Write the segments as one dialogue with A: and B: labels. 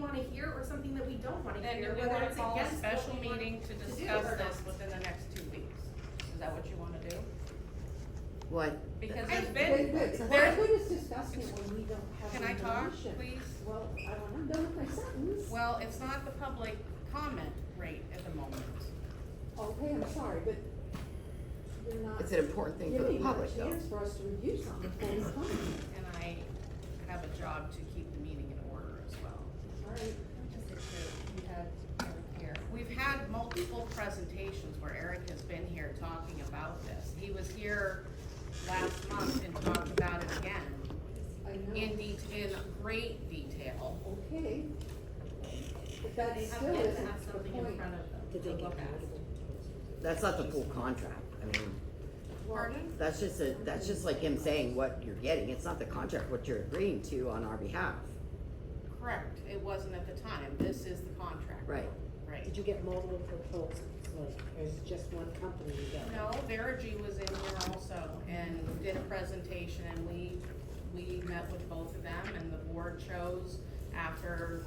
A: wanna hear or something that we don't wanna
B: Then do
A: hear,
B: we
A: whether
B: wanna
A: it's
B: call a
A: against what
B: special
A: we want
B: meeting to
A: do
B: discuss
A: or
B: this
A: not.
B: within the next two weeks? Is that what you wanna do?
C: What?
B: Because
A: I-
B: there's
D: Wait,
B: been,
D: wait, so
B: there-
D: why would us discuss it when we don't have
B: can I
D: information?
B: talk, please?
D: Well, I don't, I'm done with my sentence.
B: Well, it's not the public comment rate at the moment.
D: Okay, I'm sorry, but you're not
C: It's an important thing for the
D: giving a
C: public, though.
D: chance for us to review something before we comment.
B: And I have a job to keep the meeting in order as well.
D: All right,
B: We've had multiple presentations where Eric has been here talking about this. He was here last month and talked about it again
D: I
B: in
D: know,
B: det in great detail.
D: okay. But that
A: They have
D: still
A: yet to
D: isn't
A: have
D: the
A: something in
D: point.
A: front of them.
E: Did they get paid?
C: That's not the full contract. I mean,
D: Well,
B: Pardon?
C: that's just a, that's just like him saying what you're getting. It's not the contract, what you're agreeing to on our behalf.
B: Correct, it wasn't at the time. This is the contract.
C: Right.
B: Right.
E: Did you get multiple proposals, like, or is it just one company you got?
B: No, Verigy was in here also and did a presentation and we, we met with both of them and the board chose after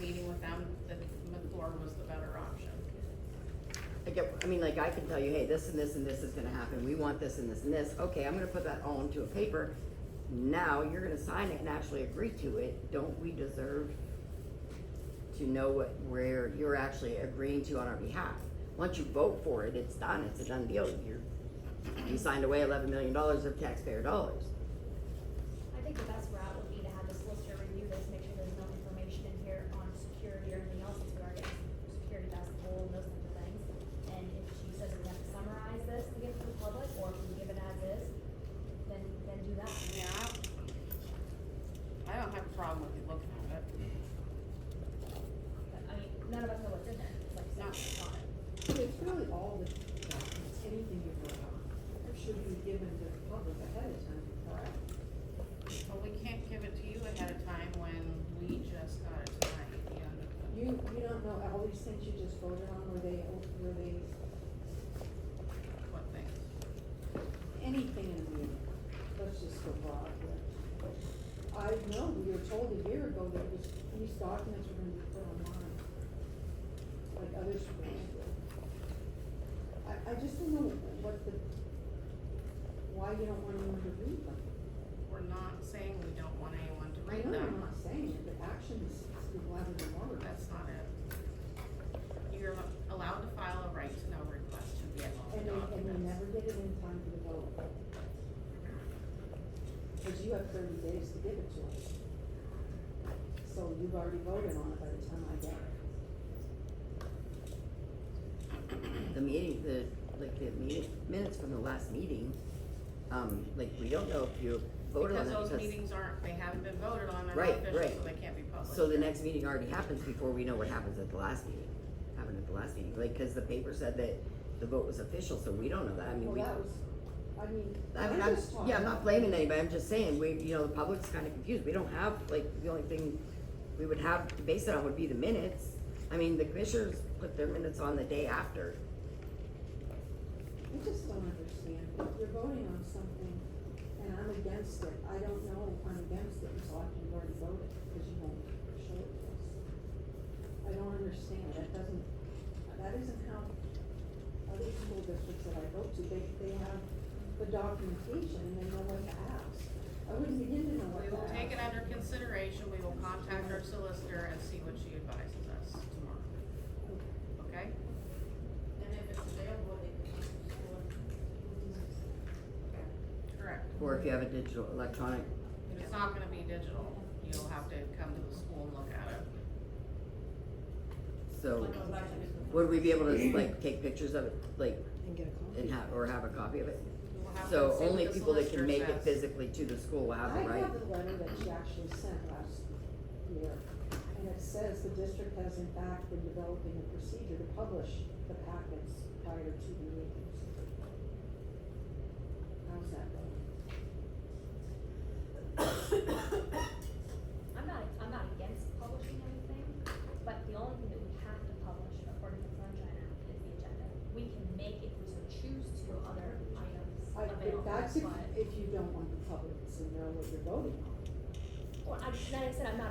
B: meeting with them that McClure was the better option.
C: I get, I mean, like, I can tell you, hey, this and this and this is gonna happen, we want this and this and this, okay, I'm gonna put that all into a paper. Now, you're gonna sign it and actually agree to it, don't we deserve to know what, where you're actually agreeing to on our behalf? Once you vote for it, it's done, it's a done deal, you're, you signed away eleven million dollars of taxpayer dollars.
F: I think the best route would be to have the solicitor review this, make sure there's no information in here on security or anything else that's regarding security basketball and those kinds of things. And if she says we have to summarize this and give it to the public, or if we give it as is, then, then do that.
B: Yeah. I don't have a problem with you looking at it.
F: But, I mean, none of us know what's in there, it's like,
B: No.
F: it's not.
D: It's really all the documents, anything you vote on, should be given to the public ahead of time. Correct.
B: But we can't give it to you ahead of time when we just got it tonight, at the end of the-
D: You, you don't know, all these things you just voted on, were they, were they,
B: what thing.
D: anything in the meeting? Let's just go broad here. I know, we were told a year ago that this, these documents were gonna be put online, like other schools do. I, I just don't know what the, why you don't want anyone to read them.
B: We're not saying we don't want anyone to
D: I
B: read
D: know I'm
B: them.
D: not saying it, but actions speak louder than words.
B: That's not it. You're allowed to file a right to know request to get all
D: And
B: the
D: we, and we never
B: documents.
D: did it in time for the vote. Cause you have thirty days to give it to us. So you've already voted on it by the time I get it.
C: The meeting, the, like, the meeting, minutes from the last meeting, um, like, we don't know if you voted on
B: Because those
C: that because.
B: meetings aren't, they haven't been voted on, they're not
C: Right,
B: official,
C: right.
B: so they can't be published.
C: So the next meeting already happens before we know what happens at the last meeting, happened at the last meeting, like, cause the paper said that the vote was official, so we don't know that, I mean,
D: Well,
C: we.
D: that was, I mean,
C: I mean,
D: I'm
C: I'm,
D: just talking.
C: yeah, I'm not blaming anybody, I'm just saying, we, you know, the public's kinda confused, we don't have, like, the only thing we would have to base it on would be the minutes. I mean, the commissioners put their minutes on the day after,
D: I just don't understand. If you're voting on something and I'm against it, I don't know if I'm against it until after you've already voted, cause you won't show it to us. I don't understand. That doesn't, that isn't how other school districts that I go to, they, they have the documentation and they know what to ask. I wouldn't begin to know what
B: We
D: to
B: will
D: ask.
B: take it under consideration, we will contact our solicitor and see what she advises us tomorrow, okay?
G: And if it's available, they can use
B: Correct.
C: or if you have a digital, electronic,
B: It's not gonna be digital, you'll have to come to the school and look at it.
C: so,
G: Like a budget is the-
C: would we be able to, like, take pictures of it, like,
E: And get a copy?
C: and have, or have a copy of it?
B: We will have to
C: So
B: see what
C: only
B: the
C: people that can
B: solicitor
C: make it
B: says.
C: physically to the school will have
D: I
C: it, right?
D: have the letter that she actually sent last year, and it says the district has in fact been developing a procedure to publish the packets prior to the meetings. How's that going?
F: I'm not, I'm not against publishing anything, but the only thing that we have to publish according to the Sunshine Act is the agenda. We can make, if we so choose to, other items
D: I, if
F: available,
D: that's if,
F: but,
D: if you don't want the public to know what you're voting on.
F: well, I'm, like I said, I'm not